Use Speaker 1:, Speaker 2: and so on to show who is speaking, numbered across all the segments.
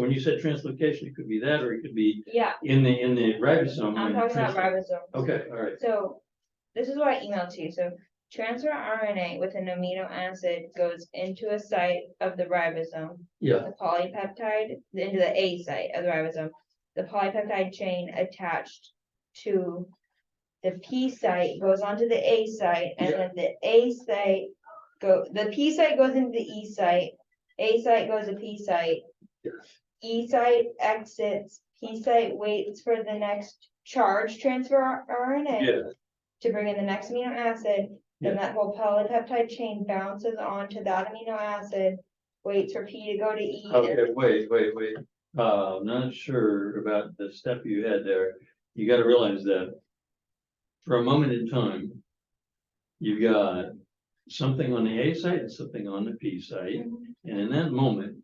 Speaker 1: when you said translocation, it could be that, or it could be
Speaker 2: Yeah,
Speaker 1: in the, in the ribosome. when
Speaker 2: I'm talking
Speaker 1: translo-
Speaker 2: about ribosomes.
Speaker 1: Um, Okay, all right,
Speaker 2: So this is what I emailed to you. So transfer RNA with an amino acid goes into a site of the ribosome.
Speaker 1: yeah,
Speaker 2: The polypeptide into the A site of the ribosome. The polypeptide chain attached to the P site goes onto the A site and
Speaker 1: Yeah.
Speaker 2: then the A site go, the P site goes into the E site. A site goes to P site.
Speaker 1: yes,
Speaker 2: E site exits, P site waits for the next charge transfer RNA
Speaker 1: yeah,
Speaker 2: to bring in the next amino acid,
Speaker 1: Yeah.
Speaker 2: then that whole polypeptide chain bounces onto that amino acid, waits for P to go to E. and-
Speaker 1: okay, wait, wait, wait, uh, I'm not sure about the step you had there, you gotta realize that. For a moment in time. You've got something on the A site and something on the P site, and in that moment.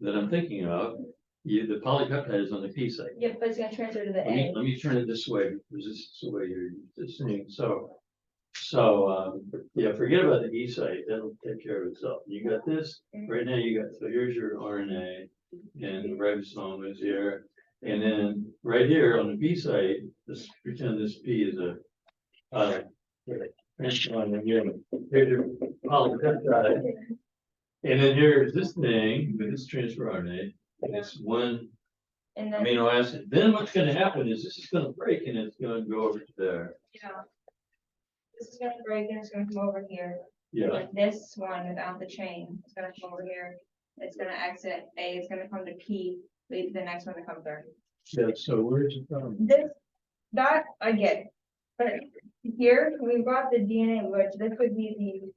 Speaker 1: That I'm thinking of, you, the polypeptide is on the P site.
Speaker 2: Yeah, but it's gonna transfer to the
Speaker 1: Let me,
Speaker 2: A.
Speaker 1: let me turn it this way, because this is the way you're listening, so. So, um, yeah, forget about the E site, that'll take care of itself, you got this, right now you got, so here's your RNA. And the ribosome is here, and then right here on the B site, let's pretend this P is a. Uh, transplant, and here, here's your polypeptide. And then here's this thing, with this transfer RNA, and it's one
Speaker 2: And then,
Speaker 1: amino acid, then what's gonna happen is this is gonna break and it's gonna go over to there.
Speaker 2: yeah. This is gonna break and it's gonna come over here.
Speaker 1: Yeah,
Speaker 2: Like This one without the chain, it's gonna come over here. It's gonna exit, A is gonna come to P, leave the next one to come through.
Speaker 1: yeah, so where's it from?
Speaker 2: This, that I get, but here, we've got the DNA, which this would be the.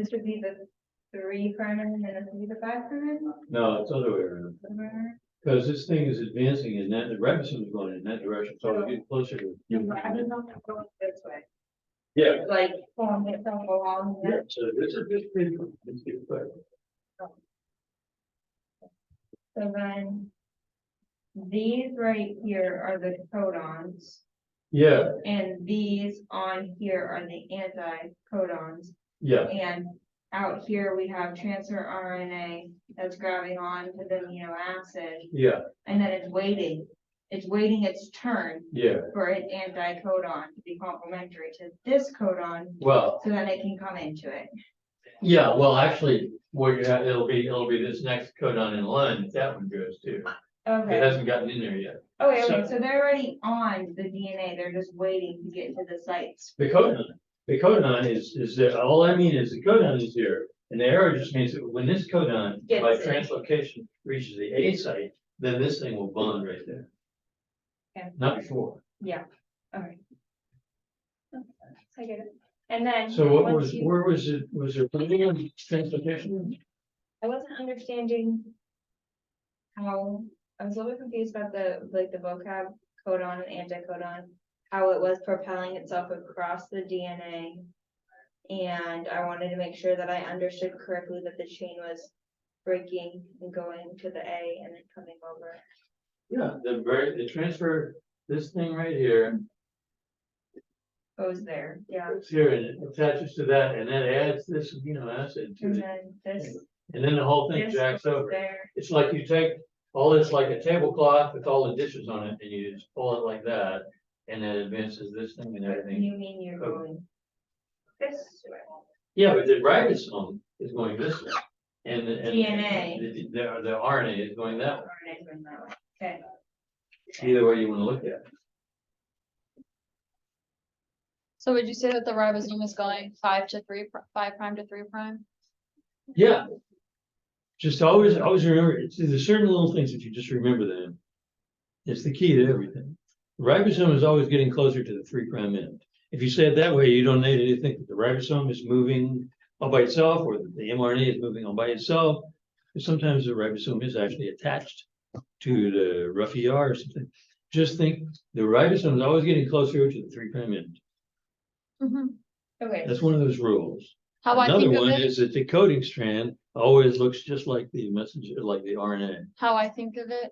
Speaker 2: This would be the three prime and then this would be the five prime.
Speaker 1: No, it's other way around, because this thing is advancing in that, the ribosome is going in that direction, so we get closer to.
Speaker 2: This way,
Speaker 1: Yeah,
Speaker 2: like, oh, form itself along.
Speaker 1: yeah, so this is this thing. this is good.
Speaker 2: So then. These right here are the codons,
Speaker 1: Yeah,
Speaker 2: and these on here are the anti-codons.
Speaker 1: yeah,
Speaker 2: And out here, we have transfer RNA that's grabbing on to the amino acid,
Speaker 1: yeah,
Speaker 2: and then it's waiting. It's waiting its turn
Speaker 1: yeah,
Speaker 2: for its anti-codon to be complementary to this codon,
Speaker 1: well,
Speaker 2: so then it can come into it.
Speaker 1: yeah, well, actually, what you have, it'll be, it'll be this next codon in line, that one goes to, it
Speaker 2: Okay,
Speaker 1: hasn't gotten in there yet.
Speaker 2: okay,
Speaker 1: so-
Speaker 2: okay, so they're already on the DNA, they're just waiting to get to the sites.
Speaker 1: The codon, the codon is, is there, all I mean is the codon is here, and the arrow just means that when this codon
Speaker 2: Gets
Speaker 1: by
Speaker 2: it.
Speaker 1: translocation reaches the A site, then this thing will bond right there.
Speaker 2: Okay.
Speaker 1: Not before.
Speaker 2: Yeah, alright. I get it. And then.
Speaker 1: So what
Speaker 2: once
Speaker 1: was,
Speaker 2: you-
Speaker 1: where was it, was there planning on translocation?
Speaker 2: I wasn't understanding how, I was a little bit confused about the, like, the vocab codon and anticodon, how it was propelling itself across the DNA. And I wanted to make sure that I understood correctly that the chain was breaking and going to the A and then coming over.
Speaker 1: Yeah, the very, the transfer, this thing right here,
Speaker 2: Goes there, yeah.
Speaker 1: it's here and it attaches to that, and then adds this amino acid to
Speaker 2: And
Speaker 1: it,
Speaker 2: then this,
Speaker 1: and then the whole thing
Speaker 2: this
Speaker 1: jacks
Speaker 2: goes
Speaker 1: over.
Speaker 2: there.
Speaker 1: It's like you take all this like a tablecloth with all the dishes on it and you just pull it like that. And it advances this thing and everything.
Speaker 2: You mean you're
Speaker 1: Oh.
Speaker 2: going this way.
Speaker 1: Yeah, but the ribosome is going this way. And the. and
Speaker 2: DNA.
Speaker 1: The, the- the RNA is going that way.
Speaker 2: RNA going that way. Okay,
Speaker 1: Either way you wanna look at it.
Speaker 3: So would you say that the ribosome is going five to three, pr- five prime to three prime?
Speaker 1: Yeah. Just always, always remember, it's, there's certain little things that you just remember them. It's the key to everything. Ribosome is always getting closer to the three prime end. If you say it that way, you don't need anything. The ribosome is moving all by itself or the mRNA is moving all by itself. And Sometimes the ribosome is actually attached to the rough ER or something. Just think, the ribosome is always getting closer to the three prime end.
Speaker 2: okay.
Speaker 1: That's one of those rules.
Speaker 3: How I
Speaker 1: Another
Speaker 3: think of
Speaker 1: one
Speaker 3: it,
Speaker 1: is that the coding strand always looks just like the messenger, like the RNA.
Speaker 3: how I think of it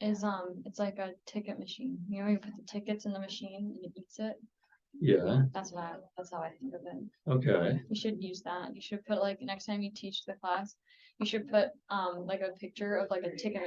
Speaker 3: is, um, it's like a ticket machine. You know, you put the tickets in the machine and it eats it.
Speaker 1: Yeah,
Speaker 3: That's what I, that's how I think of it.
Speaker 1: okay,
Speaker 3: You should use that. You should put like, next time you teach the class, you should put, um, like a picture of like a ticket